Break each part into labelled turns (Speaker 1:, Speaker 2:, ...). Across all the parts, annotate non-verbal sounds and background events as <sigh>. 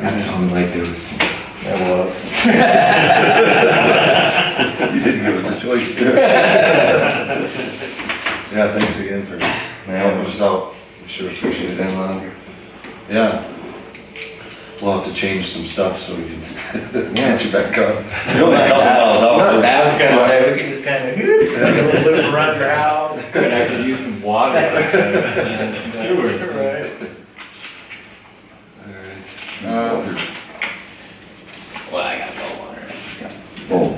Speaker 1: That sounded like there was.
Speaker 2: That was.
Speaker 3: You didn't give <laughs> us a choice. Yeah, thanks again for helping us out. We Sure appreciate it. Yeah. We'll have to change some stuff so we can <laughs> get you back <laughs> on. You're only a couple miles
Speaker 1: Not
Speaker 3: out.
Speaker 1: that was
Speaker 4: I was
Speaker 1: gonna
Speaker 4: like, we can just kind of, <laughs> loop around your house.
Speaker 1: say, good, I could use some water and some sewers.
Speaker 4: Right.
Speaker 3: Uh,
Speaker 1: Well, I got no water.
Speaker 3: Oh.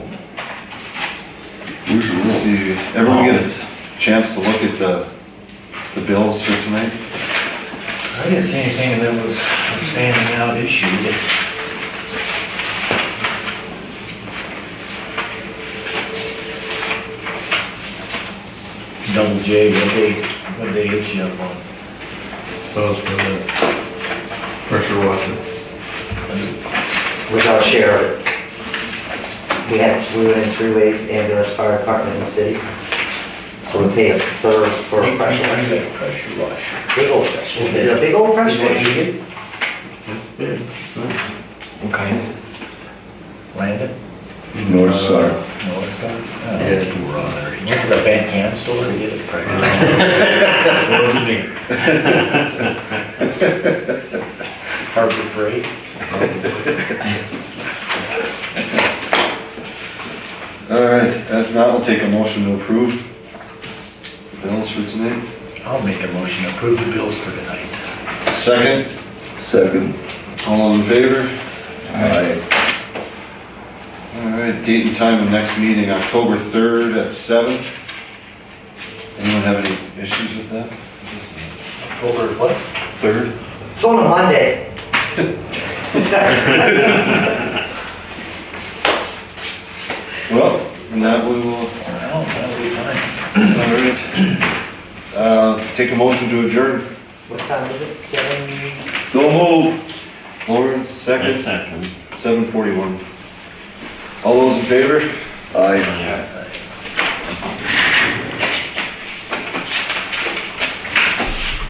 Speaker 3: Where's Oh. your See, everyone get a chance to look at the, the bills for tonight?
Speaker 4: I didn't see anything that was a standing out issue that. Double J, what they, what they hit you up on?
Speaker 5: That was for the pressure washer.
Speaker 2: Without sheriff. We had, we went in three ways, ambulance, fire department, and city. So we pay a third for a pressure wash.
Speaker 4: pressure wash.
Speaker 2: Big old pressure. Is it a big old pressure wash?
Speaker 5: That's big, it's nice.
Speaker 1: What kind is it?
Speaker 4: Landon?
Speaker 3: North Star.
Speaker 4: No, it's not. Yeah, two were on there. Went to the Van Camp store to get a pressure wash. <laughs> Harbor Freight.
Speaker 3: All right, if not, we'll take a motion to approve the bills for tonight.
Speaker 4: I'll make a motion to approve the bills for tonight.
Speaker 3: Second? Second. All those in favor? Aye. All right, date and time of next meeting, October third at seven. Anyone have any issues with that?
Speaker 4: October what?
Speaker 3: Third?
Speaker 2: It's on a Monday. <laughs>
Speaker 3: Well, and that we will, all
Speaker 4: No, that'll be fine.
Speaker 3: right. Uh, take a motion to adjourn.
Speaker 2: What time is it? Seven?
Speaker 3: So move. Lauren, second? Second. Seven forty-one. All those in favor? Aye.